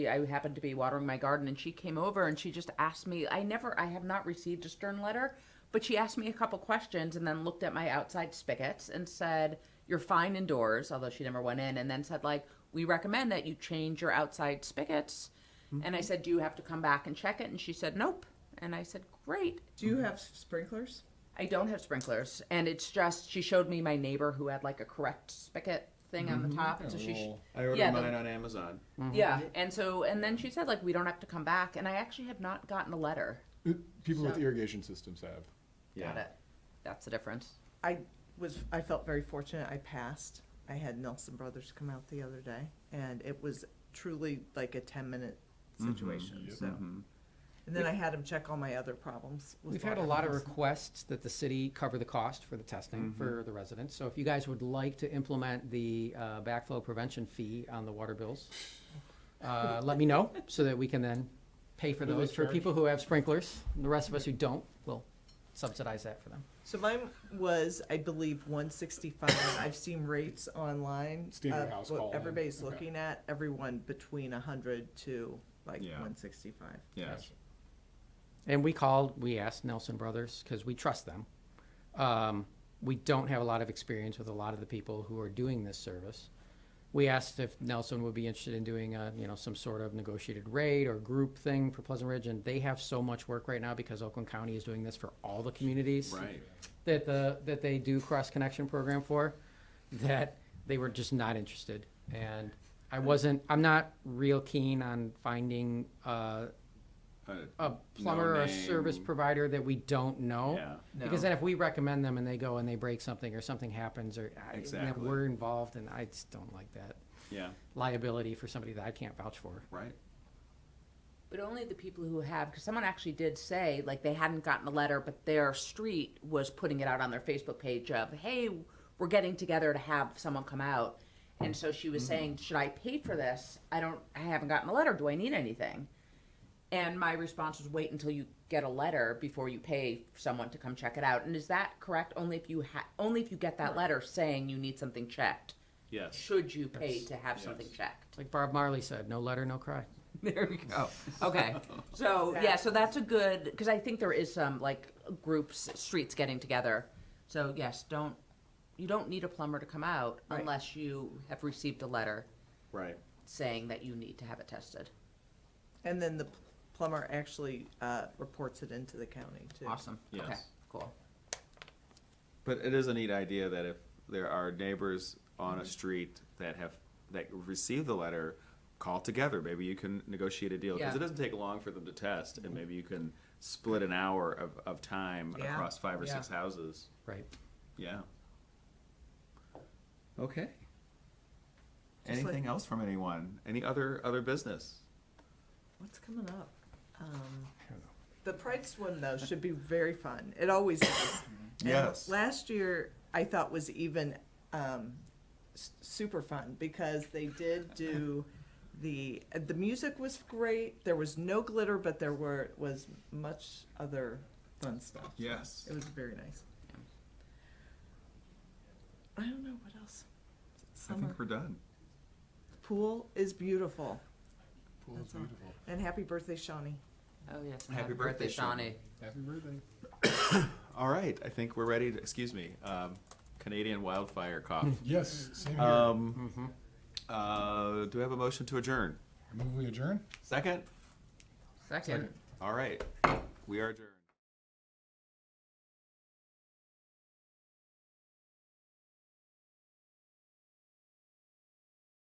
I happened to be watering my garden and she came over and she just asked me, I never, I have not received a stern letter, but she asked me a couple questions and then looked at my outside spigots and said, You're fine indoors, although she never went in, and then said, like, we recommend that you change your outside spigots. Mm-hmm. And I said, Do you have to come back and check it? And she said, Nope. And I said, Great. Do you have sprinklers? I don't have sprinklers, and it's just she showed me my neighbor who had like a correct spigot thing on Mm-hmm. the top, and so she, sh- I ordered Yeah, the- mine on Amazon. yeah, and so and then she said like we don't have to come back, and I actually have not gotten a letter. People with So- irrigation systems have. Got it. That's the difference. I was, I felt very fortunate. I passed. I had Nelson Brothers come out the other day and it was truly like a ten minute Mm-hmm. situation, so. And then I had him check all my other problems. with We've had a water lot of problems. requests that the city cover the cost for the testing for the residents. So if you guys would like to implement the uh, backflow prevention fee on the water bills, uh, let me know so that we can then pay for What do they those. For charge? people who have sprinklers, the rest of us who don't, we'll subsidize that for them. So mine was, I believe, one sixty-five. I've seen rates online. Standard of house what call in. Everybody's Okay. looking at, everyone between a hundred to like Yeah. one sixty-five. Yeah. And we called, we asked Nelson Brothers because we trust them. Um, we don't have a lot of experience with a lot of the people who are doing this service. We asked if Nelson would be interested in doing a, you know some sort of negotiated rate or group thing for Pleasant Ridge, and they have so much work right now because Oakland County is doing this for all the communities Right. that the that they do cross connection program for that they were just not interested and I wasn't I'm not real keen on finding uh, Uh, a plumber or a service No-name. provider that we don't know. Yeah. Because then if we recommend them and they go and they break something or something happens or I, and then Exactly. we're involved and I just don't like that yeah. liability for somebody that I can't vouch for. Right. But only the people who have, because someone actually did say like they hadn't gotten a letter, but their street was putting it out on their Facebook page of, hey, we're getting together to have someone come out. And so she was saying, should I pay for this? I don't, I haven't gotten a letter. Do I need anything? And my response was, wait until you get a letter before you pay someone to come check it out. And is that correct? Only if you ha- only if you get that letter saying you need something checked, Yes. should you pay to have something checked? Like Bob Marley said, no letter, no cry. There we go. Okay. So, yeah, so that's a good, because I think there is some, like, groups, streets getting together. So, yes, don't, you don't need a plumber to come out Right. unless you have received a letter Right. saying that you need to have it tested. And then the plumber actually, uh, reports it into the county too. Awesome. Okay, Yes. cool. But it is a neat idea that if there are neighbors on Mm-hmm. a street that have that receive the letter, call together. Maybe you can negotiate a deal because Yeah. Mm-hmm. it doesn't take long for them to test, and maybe you can split an hour of, of time Yeah. across five or Yeah. six houses. Right. Yeah. Okay. Just like- Anything else from anyone? Any other other business? What's coming up? Um, don't know. the Pride swim though should be very fun. It always is. And Yes. last year I thought was even um, s- super fun because they did do the the music was great. There was no glitter, but there were was much other fun stuff. Yes. It was very nice. I don't know what else. I Summer think we're done. pool is beautiful, Pool That's is all. beautiful. and happy birthday, Shawnee. Oh, yes. and Happy happy birthday, birthday, Shawnee. Happy birthday. All right, I think we're ready to, excuse me, um, Canadian wildfire cough. Yes, same here. Um, uh, do we have a motion to adjourn? Move we adjourn? Second? Second. All right, we are adjourned.